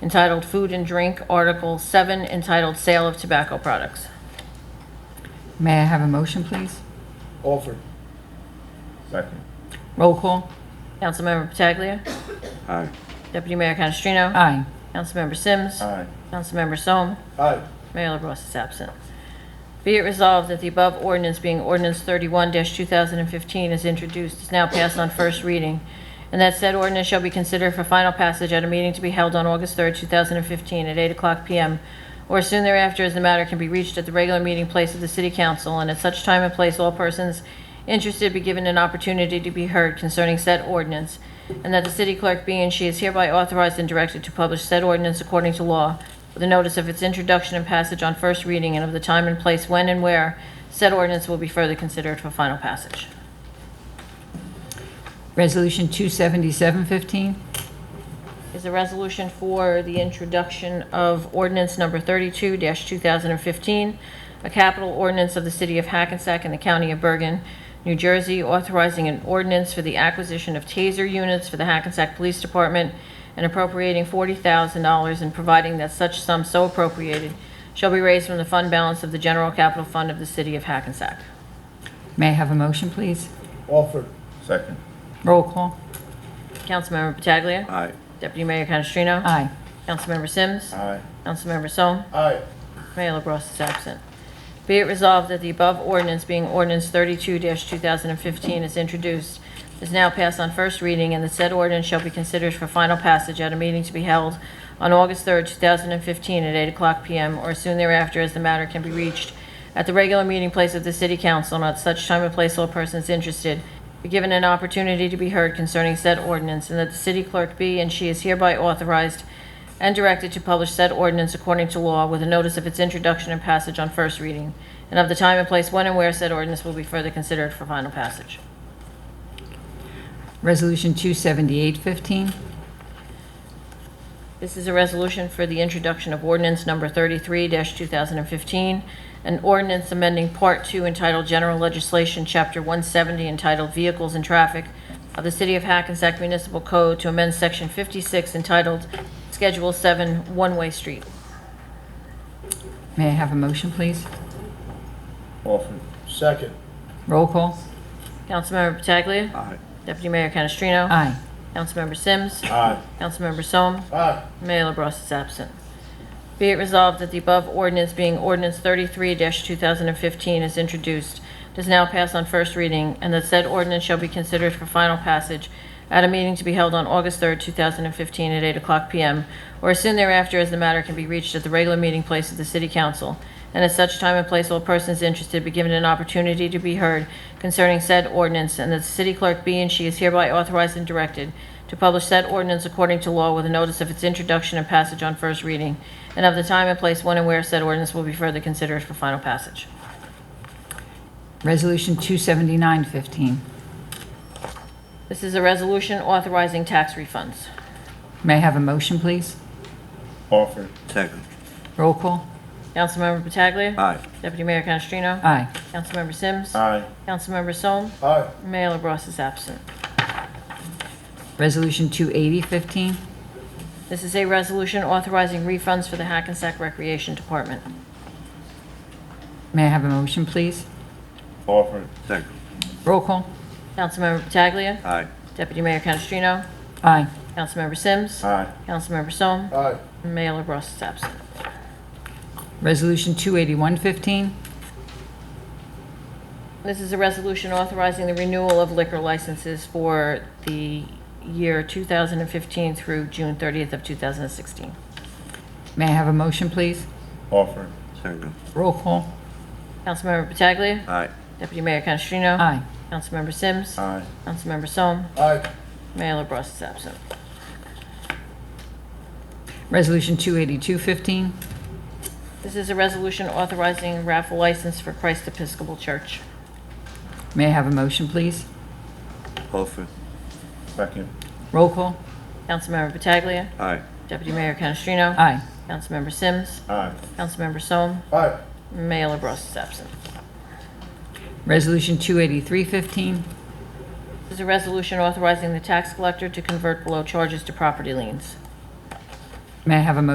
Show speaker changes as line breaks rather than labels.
entitled Food and Drink, Article 7, entitled Sale of Tobacco Products.
May I have a motion, please?
Offered.
Second.
Roll call.
Councilmember Pataglia.
Aye.
Deputy Mayor Canestrino.
Aye.
Councilmember Sims.
Aye.
Councilmember Sol.
Aye.
Mayor LaBrus is absent. Be it resolved that the above ordinance being ordinance 31-2015 is introduced, is now passed on first reading, and that said ordinance shall be considered for final passage at a meeting to be held on August 3rd, 2015, at 8 o'clock p.m., or soon thereafter, as the matter can be reached at the regular meeting place of the city council, and at such time and place, all persons interested be given an opportunity to be heard concerning said ordinance, and that the city clerk be and she is hereby authorized and directed to publish said ordinance according to law with a notice of its introduction and passage on first reading and of the time and place when and where said ordinance will be further considered for final passage.
Resolution 27715.
Is a resolution for the introduction of ordinance number 32-2015, a capital ordinance of the city of Hackensack and the county of Bergen, New Jersey, authorizing an ordinance for the acquisition of TASER units for the Hackensack Police Department and appropriating $40,000 and providing that such sum so appropriated shall be raised from the fund balance of the general capital fund of the city of Hackensack.
May I have a motion, please?
Offered.
Second.
Roll call.
Councilmember Pataglia.
Aye.
Deputy Mayor Canestrino.
Aye.
Councilmember Sims.
Aye.
Councilmember Sol.
Aye.
Mayor LaBrus is absent. Be it resolved that the above ordinance, being ordinance 32-2015, is introduced, is now passed on first reading, and the said ordinance shall be considered for final passage at a meeting to be held on August 3rd, 2015, at 8 o'clock p.m. or soon thereafter, as the matter can be reached at the regular meeting place of the city council, and at such time and place all persons interested be given an opportunity to be heard concerning said ordinance, and that the city clerk be and she is hereby authorized and directed to publish said ordinance according to law with a notice of its introduction and passage on first reading, and of the time and place when and where said ordinance will be further considered for final passage.
Resolution 27815.
This is a resolution for the introduction of ordinance number 33-2015, an ordinance amending Part 2 entitled General Legislation, Chapter 170 entitled Vehicles and Traffic of the City of Hackensack Municipal Code to amend Section 56 entitled Schedule 7 One-Way Street.
May I have a motion, please?
Offered.
Second.
Roll call.
Councilmember Pataglia.
Aye.
Deputy Mayor Canestrino.
Aye.
Councilmember Sims.
Aye.
Councilmember Sol.
Aye.
Mayor LaBrus is absent. Be it resolved that the above ordinance being ordinance 33-2015 is introduced, does now pass on first reading, and that said ordinance shall be considered for final passage at a meeting to be held on August 3rd, 2015, at 8 o'clock p.m., or as soon thereafter as the matter can be reached at the regular meeting place of the city council, and at such time and place all persons interested be given an opportunity to be heard concerning said ordinance, and that the city clerk be and she is hereby authorized and directed to publish said ordinance according to law with a notice of its introduction and passage on first reading, and of the time and place when and where said ordinance will be further considered for final passage.
Resolution 27915.
This is a resolution authorizing tax refunds.
May I have a motion, please?
Offered. Second.
Roll call.
Councilmember Pataglia.
Aye.
Deputy Mayor Canestrino.
Aye.
Councilmember Sims.
Aye.
Councilmember Sol.
Aye.
Mayor LaBrus is absent.
Resolution 28015.
This is a resolution authorizing refunds for the Hackensack Recreation Department.
May I have a motion, please?
Offered. Second.
Roll call.
Councilmember Pataglia.
Aye.
Deputy Mayor Canestrino.
Aye.
Councilmember Sims.
Aye.
Councilmember Sol.
Aye.
Mayor LaBrus is absent.
Resolution 28115.
This is a resolution authorizing the renewal of liquor licenses for the year 2015 through June 30th of 2016.
May I have a motion, please?
Offered. Second.
Roll call.
Councilmember Pataglia.
Aye.
Deputy Mayor Canestrino.
Aye.
Councilmember Sims.
Aye.
Councilmember Sol.
Aye.
Mayor LaBrus is absent.
Resolution 28215.
This is a resolution authorizing raffle license for Christ Episcopal Church.
May I have a motion, please?
Offered. Second.
Roll call.
Councilmember Pataglia.
Aye.
Deputy Mayor Canestrino.
Aye.
Councilmember Sims.
Aye.
Councilmember Sol.
Aye.
Mayor LaBrus is absent.
Resolution 28315.
This is a resolution authorizing the tax collector to convert below charges to property liens.
May I have a motion